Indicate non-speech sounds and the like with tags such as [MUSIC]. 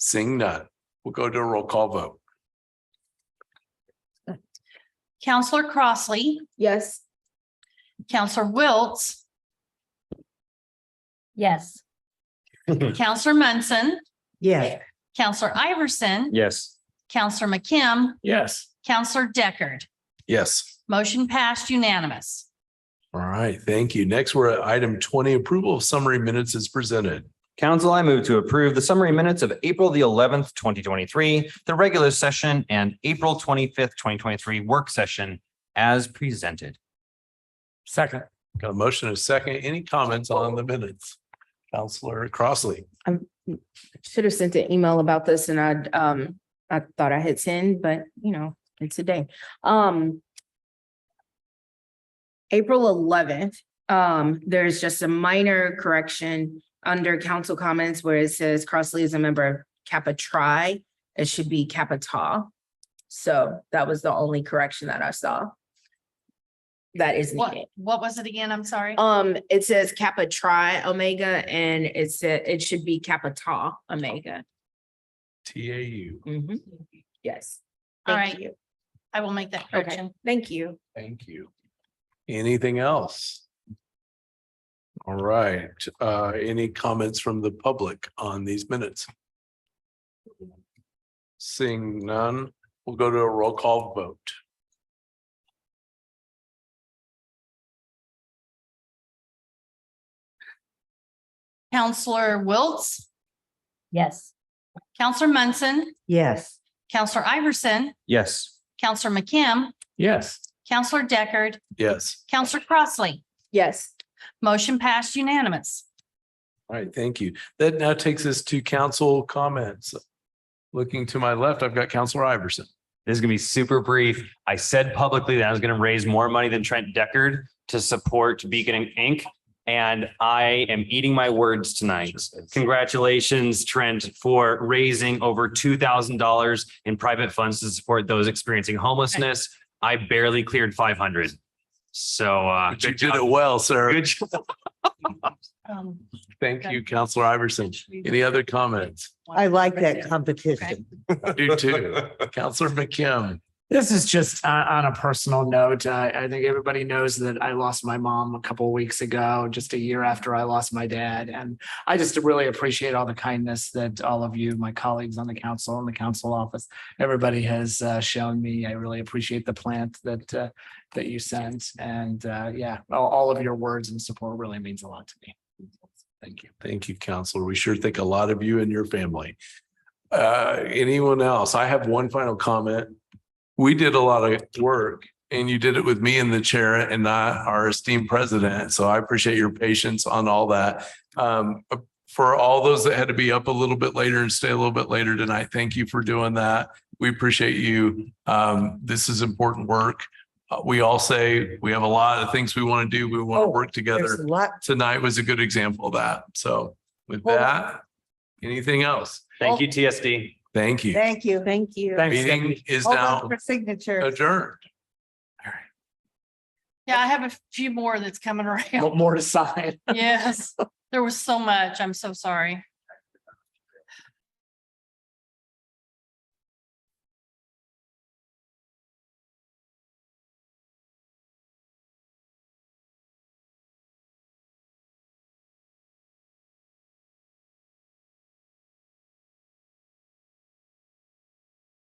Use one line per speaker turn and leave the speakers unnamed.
Seeing none, we'll go to a roll call vote.
Counselor Crossley,
Yes.
Counselor Wiltz,
Yes.
Counselor Munson,
Yeah.
Counselor Iverson,
Yes.
Counselor McKim,
Yes.
Counselor Deckard.
Yes.
Motion passed unanimous.
All right, thank you. Next, we're at item twenty, approval of summary minutes is presented.
Council, I move to approve the summary minutes of April the eleventh, twenty twenty-three, the regular session and April twenty-fifth, twenty twenty-three work session as presented.
Second. Got a motion and a second. Any comments on the minutes? Counselor Crossley.
Should have sent an email about this and I'd, um, I thought I had sent, but you know, it's a day. Um. April eleventh, um, there's just a minor correction under council comments where it says Crossley is a member of Kappa Tri. It should be Kappa Tau. So that was the only correction that I saw. That is
What,
needed.
what was it again? I'm sorry.
Um, it says Kappa Tri Omega and it said it should be Kappa Tau Omega.
T A U.
Mhm. Yes.
All
Thank
right.
you.
I will make that
Okay.
correction.
Thank you.
Thank you. Anything else? All right, uh, any comments from the public on these minutes? Seeing none, we'll go to a roll call vote.
Counselor Wiltz,
Yes.
Counselor Munson,
Yes.
Counselor Iverson,
Yes.
Counselor McKim,
Yes.
Counselor Deckard,
Yes.
Counselor Crossley.
Yes.
Motion passed unanimous.
All right, thank you. That now takes us to council comments. Looking to my left, I've got Counselor Iverson.
This is gonna be super brief. I said publicly that I was gonna raise more money than Trent Deckard to support Beacon Inc. And I am eating my words tonight. Congratulations, Trent, for raising over two thousand dollars in private funds to support those experiencing homelessness. I barely cleared five hundred. So
But Ah,
uh,
You
good
did
job.
it well, sir.
Good job.
Um,
Thank you, Counselor Iverson. Any other
[LAUGHS]
comments?
I like that competition.
I do too. Counselor McKim.
This is just uh, on a personal note. I, I think everybody knows that I lost my mom a couple of weeks ago, just a year after I lost my dad. And I just really appreciate all the kindness that all of you, my colleagues on the council and the council office, everybody has uh, shown me. I really appreciate the plant that uh, that you sent. And uh, yeah, all, all of your words and support really means a lot to me. Thank you.
Thank you, Counselor. We sure think a lot of you and your family. Uh, anyone else? I have one final comment. We did a lot of work and you did it with me in the chair and not our esteemed president. So I appreciate your patience on all that. Um, for all those that had to be up a little bit later and stay a little bit later tonight, thank you for doing that. We appreciate you. Um, this is important work. Uh, We all say we have a lot of things we want to do. We want
Oh,
to work together
There's a lot.
tonight was a good example of that. So with
Well-
that, anything else?
Thank you, TSD.
Thank you.
Thank you.
Thank you.
Thanks.
Meeting is
Hold
now
on for signature.
adjourned.
Yeah, I have a few more that's coming [LAUGHS] around.
More to sign.
Yes, there was so much. I'm so sorry.